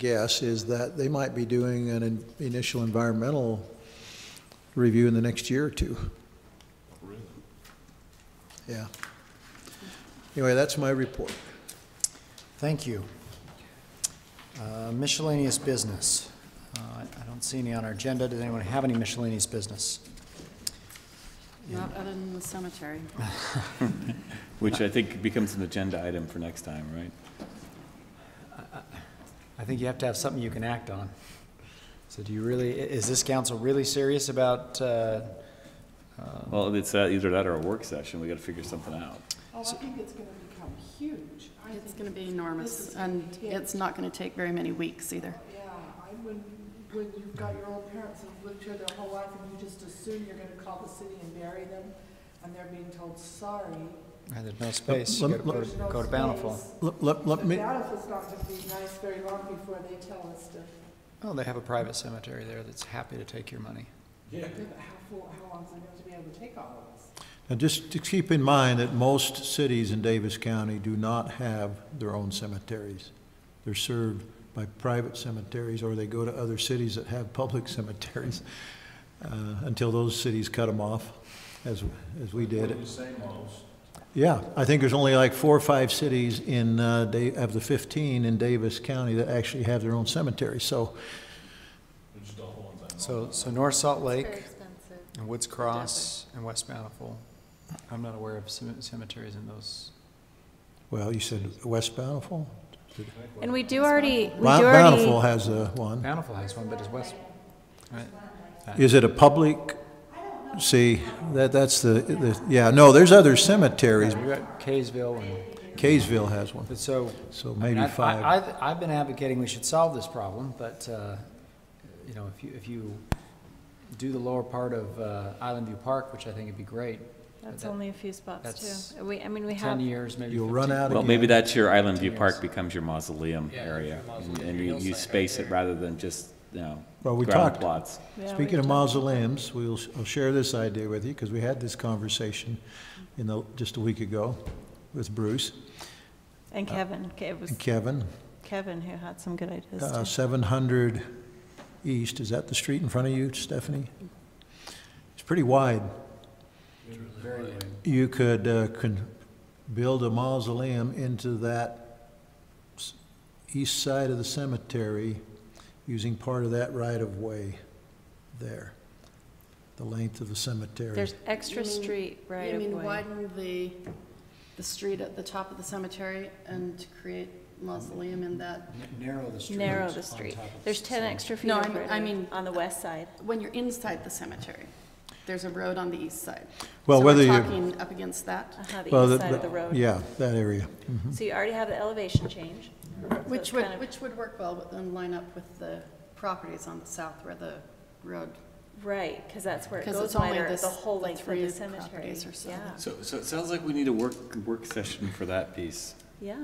guess is that they might be doing an in- initial environmental review in the next year or two. Really? Yeah. Anyway, that's my report. Thank you. Uh, Miscellaneous business. Uh, I I don't see any on our agenda. Does anyone have any miscellaneous business? Not other than the cemetery. Which I think becomes an agenda item for next time, right? I think you have to have something you can act on. So do you really, i- is this council really serious about, uh, Well, it's uh, either that or a work session, we gotta figure something out. Oh, I think it's gonna become huge. I think, It's going to be enormous, and yeah. it's not going to take very many weeks either. yeah, I, when, when you've got your own parents who've lived here their whole life and you just assume you're gonna call the city and bury them, and they're being told, sorry. there's no space, you Lem- gotta go there's no to- go to Bountiful. space." Let- Let, The let me, Bountiful's not gonna be nice very long before they tell us to, Oh, they have a private cemetery there that's happy to take your money. how, full- how long's it going to be able to take all of us? now just to keep in mind that most cities in Davis County do not have their own cemeteries. They're served by private cemeteries, or they go to other cities that have public cemeteries, uh, until those cities cut them off, as, as we did. Yeah, I think there's only like four or five cities in, uh, Da- of the 15 in Davis County that actually have their own cemetery, so, So, so North Salt Lake expensive. and Woods Cross and West Bountiful. I'm not aware of cem- cemeteries in those. well, you said West Bountiful? And we do already, we do Mount already. Bountiful has uh, one. Bountiful has one, but it's West, right? Is it a public? See, that, that's the, the, yeah, no, there's other cemeteries. You got Kaysville and, Kaysville has one, but so. so I mean, maybe I've- five. I- I've, I've been advocating we should solve this problem, but, uh, you know, if you, if you do the lower part of uh, Island View Park, which I think would be great, That's that- only a few spots that's too. We, I mean, we have. ten years, maybe You'll run 15. out Well, of, maybe that's your Island View Yes. Park becomes your mausoleum area, and- and you, you space it rather than just, you know, Well, we ground talked- plots. yeah, we speaking of do. mausoleums, we'll, I'll share this idea with you, because we had this conversation in the, just a week ago with Bruce And Kevin, Ke- it was and Kevin. Kevin who had some good ideas Uh, too. 700 East, is that the street in front of you, Stephanie? It's pretty wide. You could, uh, con- build a mausoleum into that s- east side of the cemetery using part of that right-of-way there, the length of the cemetery. There's extra You mean- street right You oh of mean way. widen the, the street at the top of the cemetery and to create mausoleum in that? N- Narrow the street. Narrow the on street. top of There's the ten cemetery. extra feet No, of I mean- right I of- mean- on the west side. When you're inside the cemetery, there's a road on the east side. Well, whether So you- we're talking up against that, Uh-huh, Well, the east side of the road. Yeah, that area. Mhm. So you already have the elevation change. so it's which kind would, of- which would work well, but then line up with the properties on the south where the road, Right, because that's where it because goes it's only wider, this, the whole the length of the three cemetery. properties or so. Yeah, So, so it sounds like we need a work, work session for that piece. yeah.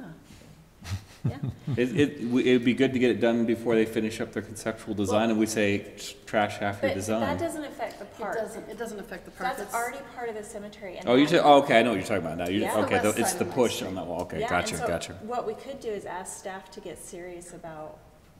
Yeah, It, it, we- it'd be good to get it done before they finish up their conceptual design, and we say, trash half your but that design. doesn't affect the It park. doesn't, it doesn't affect the park. That's already part of the cemetery. and Oh, you're, that- ta- oh, okay, I know what you're talking about now, you, Yeah. okay, The west the- it's side the of my push street. on that wall, okay, Yeah, gotcha, and so gotcha. What we could do is ask staff to get serious about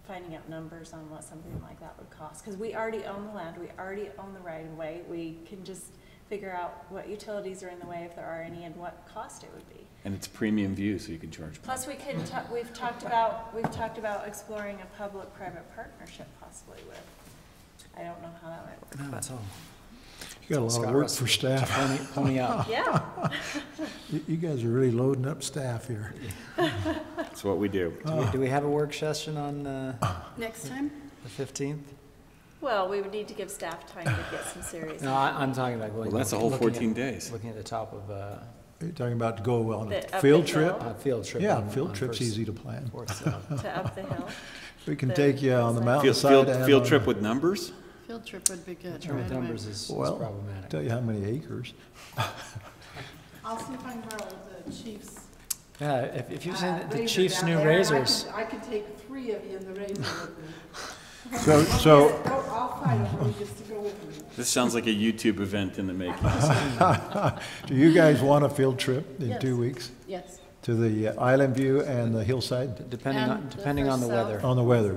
finding out numbers on what something like that would cost. Because we already own the land, we already own the right of way, we can just figure out what utilities are in the way, if there are any, and what cost it would be. And it's premium view, so you can charge. more. Plus, we can, ta- we've talked about, we've talked about exploring a public-private partnership possibly with, I don't know how that might work. No, it's all- You got a lot Scott of work Russell. for staff. Pony, pony up. Yeah, You you guys are really loading up staff here. That's what we do. Do we- Do we have a work session on uh, Next time? the fifteenth? well, we would need to give staff time to get some serious. No, I, I'm talking about going. Well, that's a whole looking at- 14 days. Looking at the top of uh, You're talking about to go on The- a up field the trip? hill? a field trip. Yeah, on- field on trip's First- easy to plan. Fourth, so. To up the hill. We can the take you on the hillside. Field, mountainside. field, and field on- trip with numbers? Field trip would be good. Term right of away. numbers is is Well, problematic. tell you how many acres. I'll see if I can borrow the chief's. Yeah, if, if you uh, send the razor chief's down new there, and I could- razors, I could take three of you in the razor with me. So, so, Go- I'll find one just to go with me. This sounds like a YouTube event in the making. do you guys want a field trip in two Yes. weeks Yes. to the uh, Island View and the hillside depending And on, the depending first on the cell. weather. on the weather?